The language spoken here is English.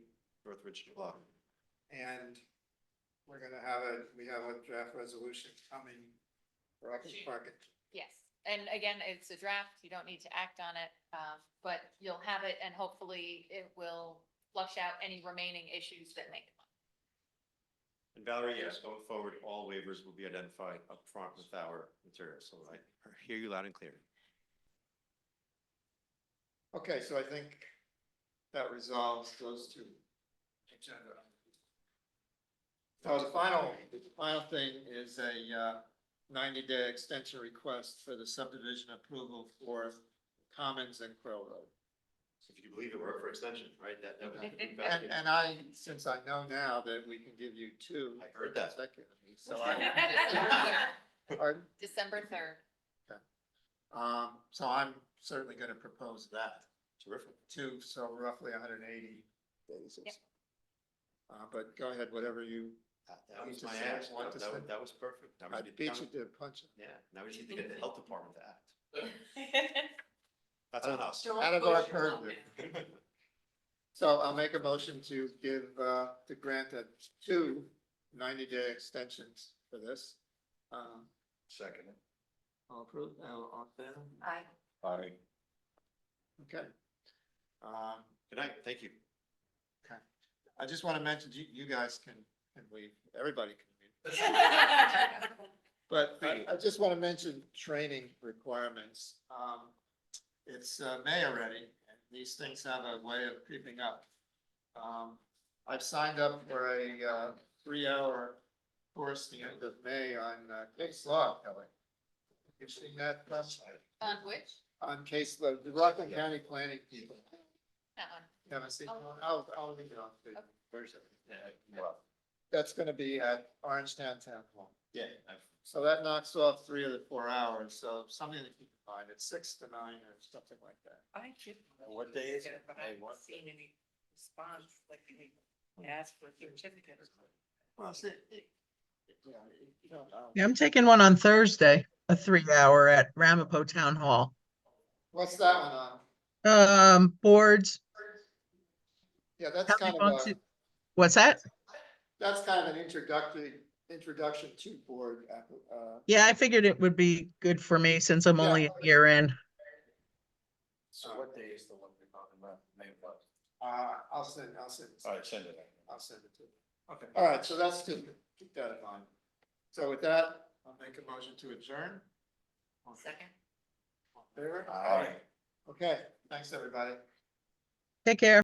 Northridge Block. And we're gonna have a, we have a draft resolution coming for Upper Market. Yes, and again, it's a draft, you don't need to act on it, um, but you'll have it and hopefully it will flush out any remaining issues that may come up. And Valerie, yes, going forward, all waivers will be identified up front with our material, so I hear you loud and clear. Okay, so I think that resolves those two. agenda items. So the final, the final thing is a uh, ninety-day extension request for the subdivision approval for Commons and Quail Road. If you believe it, we're up for extension, right? That, that was. And, and I, since I know now that we can give you two. I heard that. consecutively, So I, pardon? December third, um, so I'm certainly gonna propose that. Terrific. two, so roughly hundred and eighty days. Yep. Uh, but go ahead, whatever you, That- That You was just my said ask. one That, to that send- that was perfect. Now we I just beat need- you to the punch. Yeah, now we just need to get the health department to act. That's on us. Out of our purview. So I'll make a motion to give, uh, to grant a two 90 day extensions for this. Um, Second. I'll approve, I'll, I'll, favor? I, Aye. okay. Um, Good night, thank you. I just want to mention, you, you guys can, can leave, everybody can leave. But I, I just want to mention training requirements. Um, it's, uh, May already, and these things have a way of creeping up. Um, I've signed up for a, uh, three-hour course the end of May on, uh, case law, Kelly. You've seen that, Russ? on which? On case law, the Rockland County planning people. That one. Haven't seen, it? I'll, I'll leave it on. to you. Where's it? Well, That's gonna be at Orange Town Town Hall. yeah, I've- So that knocks off three of the four hours, so something to keep in mind, it's six to nine or something like that. I should. What day is it? But Hey, I haven't what- seen any response, like, any ask for certificates. Well, see, it- it- yeah, it- you don't know. um, Yeah, I'm taking one on Thursday, a three hour at Ramapo Town Hall. What's that one on? Um, boards, Yeah, that's Healthy kind of a, function- what's that? that's kind of an introductory, introduction to board, app- uh, Yeah, I figured it would be good for me since I'm Yeah. only a year in. So what day is the one we're talking about? May what? uh, I'll send, I'll send. it. All right, send it. I'll send it to you. Okay. All right, so that's two, keep that in mind. So with that, I'll make a motion to adjourn. Second. Favor? Aye. Okay, thanks, everybody. Take care.